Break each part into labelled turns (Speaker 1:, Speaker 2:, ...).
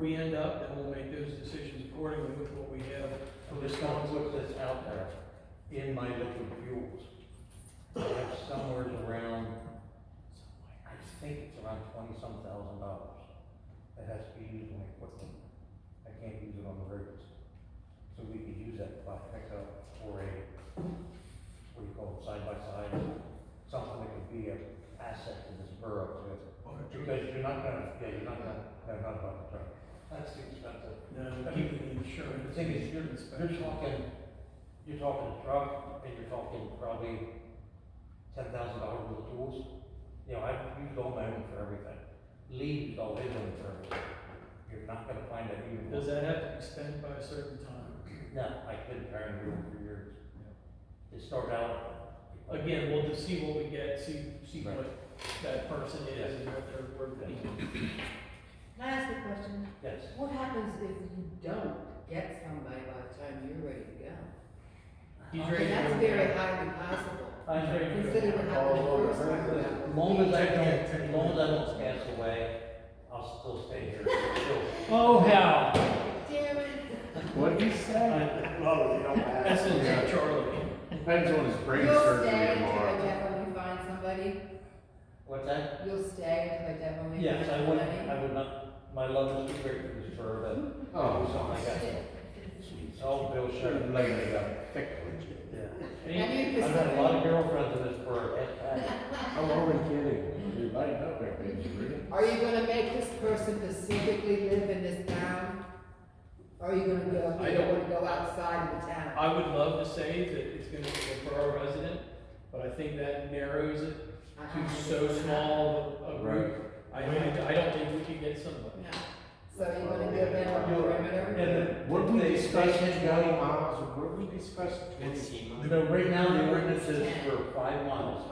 Speaker 1: we end up, then we'll make those decisions accordingly with what we have.
Speaker 2: So this sounds like that's out there in my liquid fuels. I have somewhere around, I think it's around twenty-some thousand dollars that has to be used on equipment. I can't use it on the roads. So we could use that by pickup or a, what do you call it, side by side, something that could be an asset to this borough too. Because you're not gonna, yeah, you're not gonna, no, not about the truck. That's too expensive.
Speaker 1: Now, uh, keeping the insurance.
Speaker 2: The thing is, you're,
Speaker 1: inspection.
Speaker 2: you're talking, you're talking truck, and you're talking probably ten thousand dollars worth of tools. You know, I've used all my own for everything, Lee used all his own for everything. You're not gonna find that even.
Speaker 1: Does that have to be spent by a certain time?
Speaker 2: No, I couldn't carry it for years. It started out.
Speaker 1: Again, we'll just see what we get, see, see
Speaker 2: Right.
Speaker 1: what that person is and what their work
Speaker 2: Yeah.
Speaker 1: ethic
Speaker 3: Can I ask a question?
Speaker 2: Yes,
Speaker 3: What happens if you don't get somebody by the time you're ready to go?
Speaker 1: He's
Speaker 3: I
Speaker 1: ready
Speaker 3: mean,
Speaker 1: to
Speaker 3: that's
Speaker 1: go.
Speaker 3: very highly possible.
Speaker 2: I
Speaker 1: He's ready to go.
Speaker 3: Consider what happened the first time
Speaker 2: As
Speaker 3: around.
Speaker 2: long as I don't, as long as I don't pass away, I'll still stay here.
Speaker 1: Oh, hell,
Speaker 3: Damn it.
Speaker 4: What'd he say?
Speaker 5: Well, you don't
Speaker 1: that's
Speaker 5: have.
Speaker 1: a Charlie.
Speaker 4: Depends on his brain
Speaker 3: You'll
Speaker 4: surgery
Speaker 3: stay until the
Speaker 4: tomorrow.
Speaker 3: death when you find somebody?
Speaker 2: What's that?
Speaker 3: You'll stay until the death when you find
Speaker 2: Yes, I would,
Speaker 3: somebody?
Speaker 2: I would not, my love is too great for this fur, but
Speaker 4: Oh,
Speaker 2: oh my god. Oh, Bill Sherman,
Speaker 4: should
Speaker 2: like,
Speaker 4: lay it up thick with you.
Speaker 1: Any-
Speaker 3: And you
Speaker 2: I've had a lot of
Speaker 3: consider,
Speaker 2: girlfriends in this fur, and, and,
Speaker 4: I'm only kidding. You're lighting up there, baby. Really?
Speaker 3: are you gonna make this person specifically live in this town? Or are you gonna go,
Speaker 1: I
Speaker 3: you don't
Speaker 1: don't-
Speaker 3: wanna go outside of the town?
Speaker 1: I would love to say that it's gonna be a borough resident, but I think that narrows it
Speaker 3: I- I-
Speaker 1: to so small a group. I, I don't think we could get somebody.
Speaker 3: No. So you're gonna give them a perimeter?
Speaker 2: and.
Speaker 4: What we
Speaker 2: they-
Speaker 4: discussed
Speaker 2: they
Speaker 4: in
Speaker 2: can
Speaker 4: County
Speaker 2: go-
Speaker 4: Miles, or what we discussed in.
Speaker 2: So right now, the ordinance is for five miles,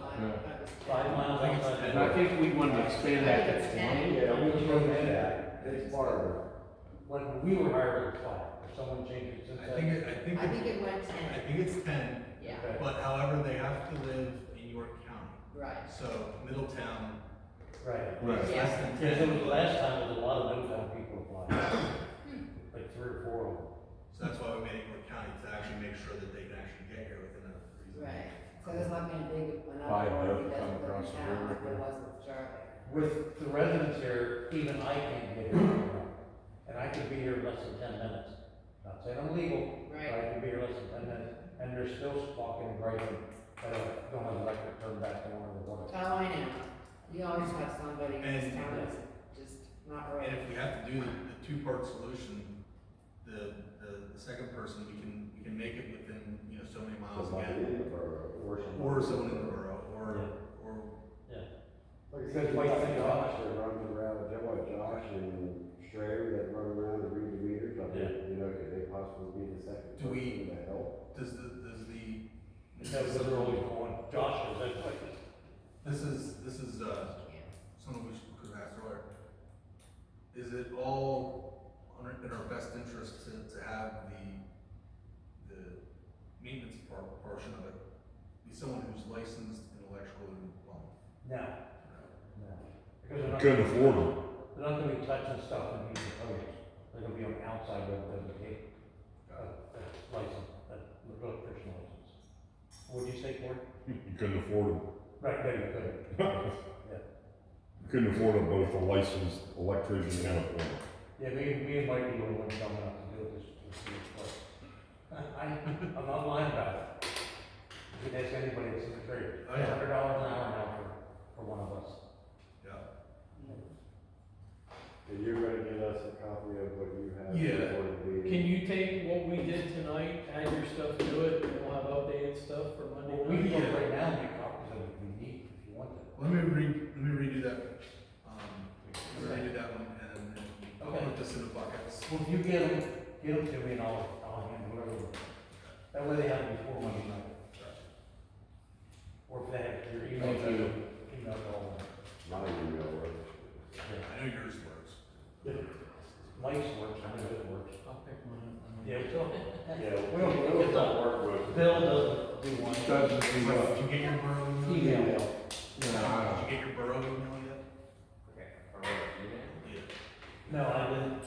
Speaker 2: five miles outside.
Speaker 4: And I think we wanted to expand that to twenty.
Speaker 2: Yeah, we can go
Speaker 5: do
Speaker 2: ahead.
Speaker 5: that. It's part of it.
Speaker 2: When we were hired at five, if someone changed it since
Speaker 6: I think,
Speaker 2: then.
Speaker 6: it- I think,
Speaker 3: I think
Speaker 6: it-
Speaker 3: it went
Speaker 6: I
Speaker 3: ten,
Speaker 6: think it's ten,
Speaker 3: yeah,
Speaker 2: Okay,
Speaker 6: but however, they have to live in York County.
Speaker 3: right.
Speaker 6: So Middletown
Speaker 2: Right.
Speaker 6: is
Speaker 4: Right.
Speaker 6: less than
Speaker 2: Because it was
Speaker 6: ten,
Speaker 2: the last time, there was a lot of Middletown people applying, like three or four of them.
Speaker 6: so that's why we made it York County to actually make sure that they can actually get here within a reasonable.
Speaker 3: Right, so there's not gonna be
Speaker 4: Buy a boat,
Speaker 3: another one that's
Speaker 4: come
Speaker 3: gonna
Speaker 4: across
Speaker 3: be
Speaker 4: the
Speaker 3: down
Speaker 4: river.
Speaker 3: like there was with Charlie.
Speaker 2: With the residents here, even I can't get here. And I could be here in less than ten minutes. Not saying I'm legal, but
Speaker 3: Right,
Speaker 2: I could be here less than ten minutes. And they're still walking and breaking, that I don't have electric turned back on or whatever.
Speaker 3: oh, I know, you always have somebody in this
Speaker 6: And-
Speaker 3: town that's just not
Speaker 6: And
Speaker 3: right.
Speaker 6: if we have to do the, the two-part solution, the, the, the second person, we can, we can make it within, you know, so many miles
Speaker 5: Somebody in
Speaker 6: again.
Speaker 5: the borough, or somebody-
Speaker 6: Or someone in the borough, or, or,
Speaker 5: Like I said,
Speaker 2: Like
Speaker 5: like
Speaker 2: the-
Speaker 5: Josh that runs around, they're like Josh and Strayer that run around and read the meters, I
Speaker 2: Yeah.
Speaker 5: mean, you know, could they possibly be the second
Speaker 6: Do we-
Speaker 5: person to help?
Speaker 6: does the, does the.
Speaker 2: That was literally going, Josh was like,
Speaker 6: This is, this is, uh, something we should- could ask earlier. Is it all on our- in our best interest to, to have the, the maintenance par portion of it be someone who's licensed in electrical and plumbing?
Speaker 2: no, no. Because they're not.
Speaker 7: Couldn't afford them.
Speaker 2: They're not gonna be touching stuff and using codes. They're gonna be on the outside of the, the, the license, that electrician license. What'd you say, Cory?
Speaker 7: You couldn't afford them.
Speaker 2: Right, there you go.
Speaker 7: You couldn't afford them both a licensed electrician and a plumber.
Speaker 2: Yeah, me, me and Mike, you were dumb enough to do this, this year, but I, I'm not lying about it. You could ask anybody that's in the trade,
Speaker 6: Oh, yeah.
Speaker 2: hundred dollars an hour now for, for one of us.
Speaker 6: Yeah.
Speaker 5: And you're gonna get us a copy of what you have.
Speaker 6: Yeah.
Speaker 5: before the meeting.
Speaker 1: Can you take what we did tonight, add your stuff to it, and we'll have updated stuff for
Speaker 2: Well,
Speaker 1: Monday
Speaker 2: we
Speaker 1: night?
Speaker 2: can go right now and make copies of it if we need, if you want to.
Speaker 6: Let me re, let me redo that, um, let me redo that one and then I'll put this in the buckets.
Speaker 2: Well, if you get them, get them to me and I'll, I'll handle whatever. That way they have it before Monday night. Or if they have your email,
Speaker 4: Thank you.
Speaker 2: email all.
Speaker 5: My email works.
Speaker 6: I know yours works.
Speaker 2: Mike's works, I know it works.
Speaker 1: I'll pick one up.
Speaker 2: Yeah, we don't,
Speaker 5: Yeah,
Speaker 2: we don't, it's not work.
Speaker 5: with.
Speaker 2: Bill doesn't do one.
Speaker 4: Doesn't
Speaker 6: Did
Speaker 4: do what?
Speaker 6: you get your borough email? yet?
Speaker 2: Email.
Speaker 4: No,
Speaker 6: Did
Speaker 4: I
Speaker 6: you get your borough email yet?
Speaker 2: No, I didn't,